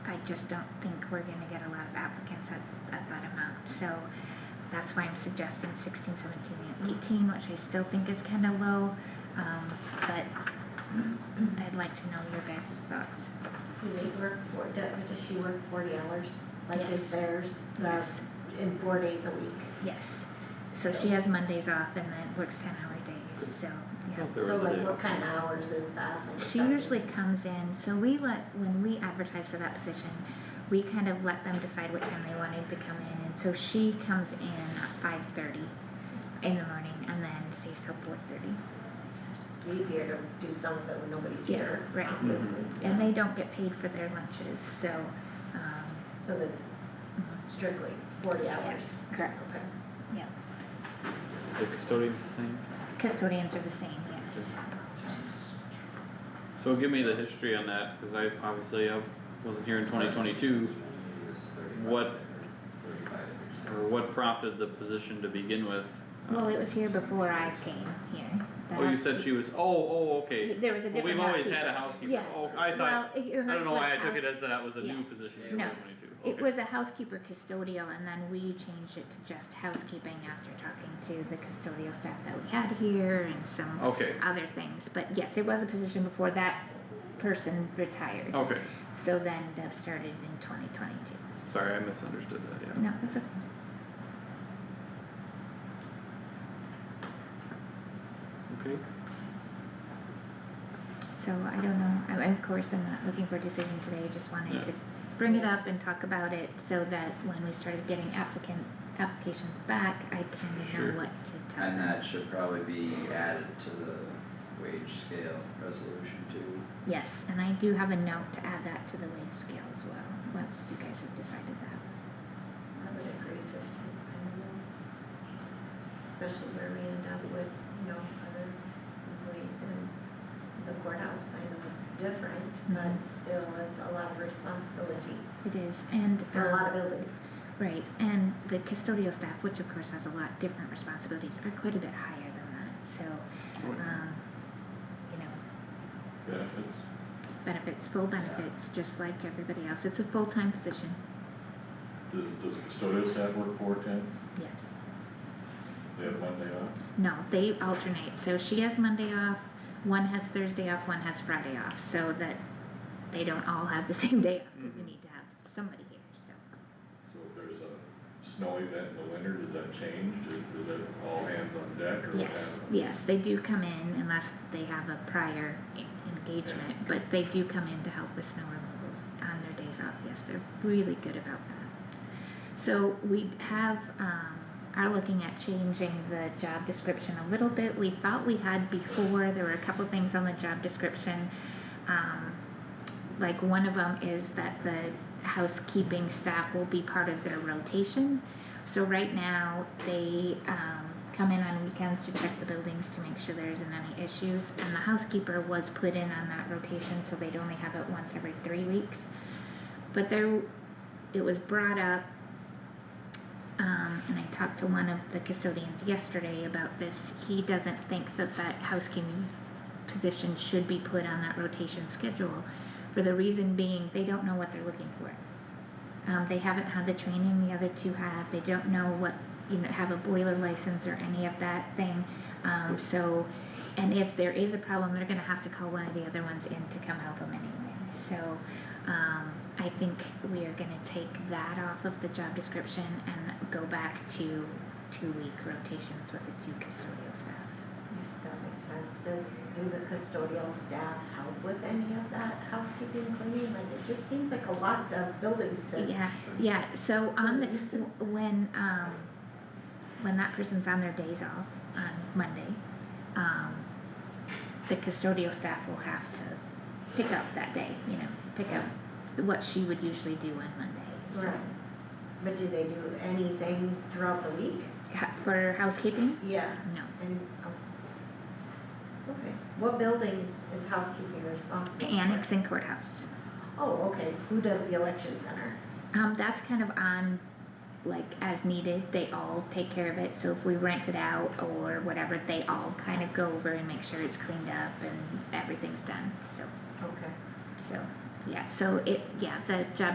just don't think we're gonna get a lot of applicants at, at that amount, so that's why I'm suggesting 16, 17, and eighteen, which I still think is kinda low, um, but I'd like to know your guys' thoughts. Do they work for, do- does she work forty hours? Like Yes. is theirs, the, Yes. in four days a week? Yes, so she has Mondays off and then works ten hour days, so, yeah. There So is a like day. what kind of hours is that? Like, She seven? usually comes in, so we let, when we advertise for that position, we kind of let them decide what time they wanted to come in, and so she comes in at five thirty in the morning and then stays till four thirty. Easier to do some of it when nobody's Yeah, here, right. obviously. Mm-hmm. And they don't get paid for their lunches, so, um, So that's strictly forty hours? yes, correct, Okay. yeah. The custodian's the same? Custodians are the same, yes. So give me the history on that, cause I, obviously, I wasn't here in twenty twenty-two, What- or what prompted the position to begin with? Uh, Well, it was here before I came here. The Oh, you said housekeep- she was, oh, oh, okay. There was a Well, different we've always had a housekeeper. housekeeper, Yeah. oh, I Well, thought, it- I don't hers know was why I took it house- as that was a yeah. new position in No. twenty twenty-two, okay. It was a housekeeper custodial and then we changed it to just housekeeping after talking to the custodial staff that we had here and some Okay, other things. But yes, it was a position before that person retired. okay, So then Deb started in twenty twenty-two. sorry, I misunderstood that, yeah. No, that's okay. Okay. So I don't know, I, of course, I'm not looking for a decision today, I just wanted Yeah. to bring it up and talk about it so that when we started getting applicant, applications back, I kind Sure. of know what to tell And uh, them. that should probably be added to the wage scale resolution too. Yes, and I do have a note to add that to the wage scale as well, once you guys have decided that. I would agree fifteen's kind of low. Especially where we end up with, you know, other employees in the courthouse, I know it's different, but Mm-hmm. still, it's a lot of responsibility It is, and, for a lot of um, buildings. right, and the custodial staff, which of course has a lot different responsibilities, are quite a bit higher than that, so, um, you know, Benefits. benefits, full benefits, just like everybody else, it's a full-time position, Does, does custodial staff work four tens? yes. They have one day off? No, they alternate, so she has Monday off, one has Thursday off, one has Friday off, so that they don't all have the same day off, cause Mm-hmm. we Mhm. need to have somebody here, so. So if there's a snow event in the winter, does that change? Is, is it all hands on deck or what Yes, happens? yes, they do come in unless they have a prior e- engagement, but they do come in to help with snow removals on their days off, yes, they're really good about that. So we have, um, are looking at changing the job description a little bit, we thought we had before, there were a couple things on the job description. Um, like one of them is that the housekeeping staff will be part of their rotation. So right now, they, um, come in on weekends to check the buildings to make sure there isn't any issues. And the housekeeper was put in on that rotation, so they'd only have it once every three weeks. But there, it was brought up, um, and I talked to one of the custodians yesterday about this. He doesn't think that that housekeeping position should be put on that rotation schedule for the reason being they don't know what they're looking for. Um, they haven't had the training the other two have. They don't know what you know have a boiler license or any of that thing. Um, so, and if there is a problem, they're going to have to call one of the other ones in to come help them anyway. So, um, I think we are going to take that off of the job description and go back to two week rotations with the two custodial staff. That makes sense. Does, do the custodial staff help with any of that housekeeping cleaning? Like, it just seems like a lot of buildings to. Yeah, yeah, so on the, w- when, um, when that person's on their days off on Monday, um, the custodial staff will have to pick up that day, you know, pick up what she would usually do on Monday, so. Right. But do they do anything throughout the week? Ha- For housekeeping? Yeah. No. And, oh. Okay, what buildings is housekeeping responsible for? Annex and courthouse. Oh, okay, who does the election center? Um, that's kind of on, like, as needed, they all take care of it, so if we rent it out or whatever, they all kind of go over and make sure it's cleaned up and everything's done, so. Okay. So, yeah, so it, yeah, the job